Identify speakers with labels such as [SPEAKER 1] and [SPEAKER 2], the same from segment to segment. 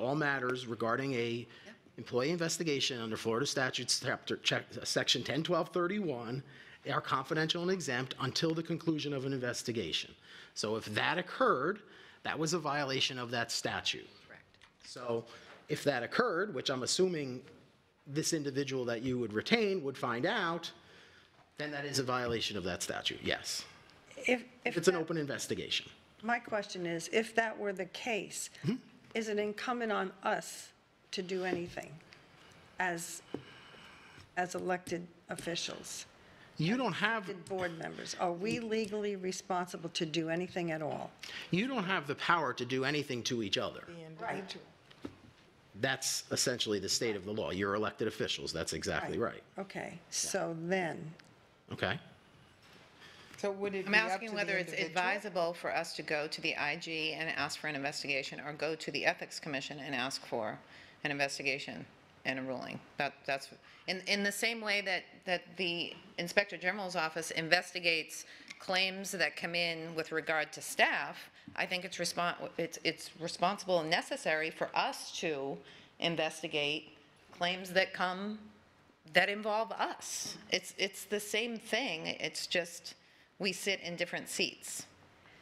[SPEAKER 1] all matters regarding a employee investigation under Florida statutes, chapter, check, section 101231, they are confidential and exempt until the conclusion of an investigation. So if that occurred, that was a violation of that statute.
[SPEAKER 2] Correct.
[SPEAKER 1] So if that occurred, which I'm assuming this individual that you would retain would find out, then that is a violation of that statute, yes.
[SPEAKER 3] If,
[SPEAKER 1] If
[SPEAKER 3] if,
[SPEAKER 1] it's an open investigation.
[SPEAKER 3] my question is, if that were the case,
[SPEAKER 1] Hmm?
[SPEAKER 3] is it incumbent on us to do anything as, as elected officials,
[SPEAKER 1] You don't have,
[SPEAKER 3] elected board members? Are we legally responsible to do anything at all?
[SPEAKER 1] you don't have the power to do anything to each other.
[SPEAKER 3] Right.
[SPEAKER 1] That's essentially the state of the law. You're elected officials, that's exactly right,
[SPEAKER 3] Okay, so then,
[SPEAKER 1] okay?
[SPEAKER 4] So would it
[SPEAKER 2] I'm
[SPEAKER 4] be up to
[SPEAKER 2] asking
[SPEAKER 4] the
[SPEAKER 2] whether it's
[SPEAKER 4] individual?
[SPEAKER 2] advisable for us to go to the IG and ask for an investigation, or go to the Ethics Commission and ask for an investigation and a ruling. That, that's, in, in the same way that, that the Inspector General's office investigates claims that come in with regard to staff, I think it's respon, it's, it's responsible and necessary for us to investigate claims that come, that involve us. It's, it's the same thing, it's just, we sit in different seats.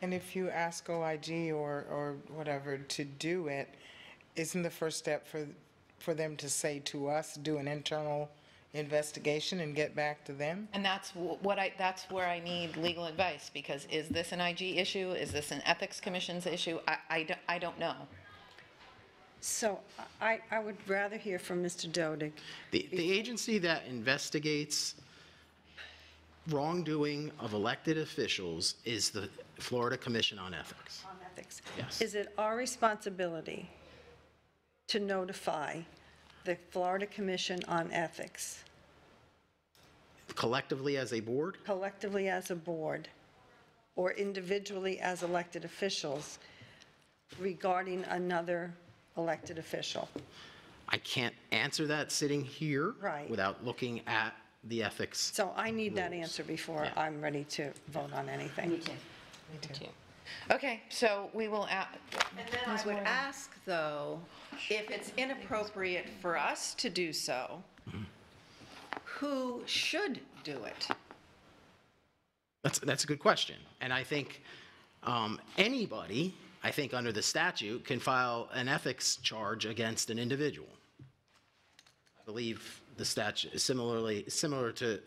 [SPEAKER 4] And if you ask OIG or, or whatever to do it, isn't the first step for, for them to say to us, do an internal investigation and get back to them?
[SPEAKER 2] And that's wh- what I, that's where I need legal advice, because is this an IG issue? Is this an Ethics Commission's issue? I, I don't, I don't know.
[SPEAKER 3] so I, I would rather hear from Mr. Dodig.
[SPEAKER 1] The, the agency that investigates wrongdoing of elected officials is the Florida Commission on Ethics.
[SPEAKER 3] on ethics.
[SPEAKER 1] Yes.
[SPEAKER 3] Is it our responsibility to notify the Florida Commission on Ethics
[SPEAKER 1] Collectively as a board,
[SPEAKER 3] collectively as a board or individually as elected officials regarding another elected official?
[SPEAKER 1] I can't answer that sitting here.
[SPEAKER 3] Right.
[SPEAKER 1] Without looking at the ethics.
[SPEAKER 3] So I need that answer before I'm ready to vote on anything.
[SPEAKER 2] Okay, so we will, a-
[SPEAKER 5] And then I would ask, though, if it's inappropriate for us to do so, who should do it?
[SPEAKER 1] That's, that's a good question. And I think um, anybody, I think under the statute, can file an ethics charge against an individual. I believe the statute is similarly, similar to,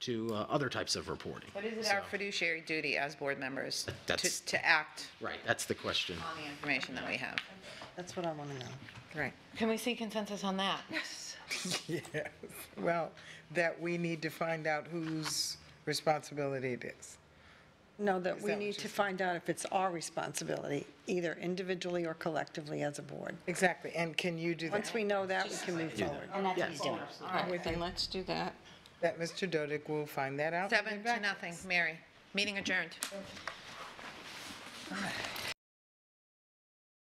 [SPEAKER 1] to uh, other types of reporting.
[SPEAKER 2] what is it our fiduciary duty as board members
[SPEAKER 1] That's-
[SPEAKER 2] to, to act
[SPEAKER 1] Right, that's the question.
[SPEAKER 2] on the information that we have?
[SPEAKER 3] That's what I want to know.
[SPEAKER 2] Right. Can we see consensus on that? Yes.
[SPEAKER 4] Yes. Well, that we need to find out whose responsibility it is.
[SPEAKER 3] No, that we
[SPEAKER 4] that what
[SPEAKER 3] need
[SPEAKER 4] you
[SPEAKER 3] to find out if it's our responsibility, either individually or collectively as a board.
[SPEAKER 4] Exactly, and can you do
[SPEAKER 3] Once
[SPEAKER 4] that?
[SPEAKER 3] we know that, we can move forward.
[SPEAKER 6] All right, then let's do that.
[SPEAKER 4] That Mr. Dodick will find that out?
[SPEAKER 2] Seven to nothing, Mary. Meeting adjourned.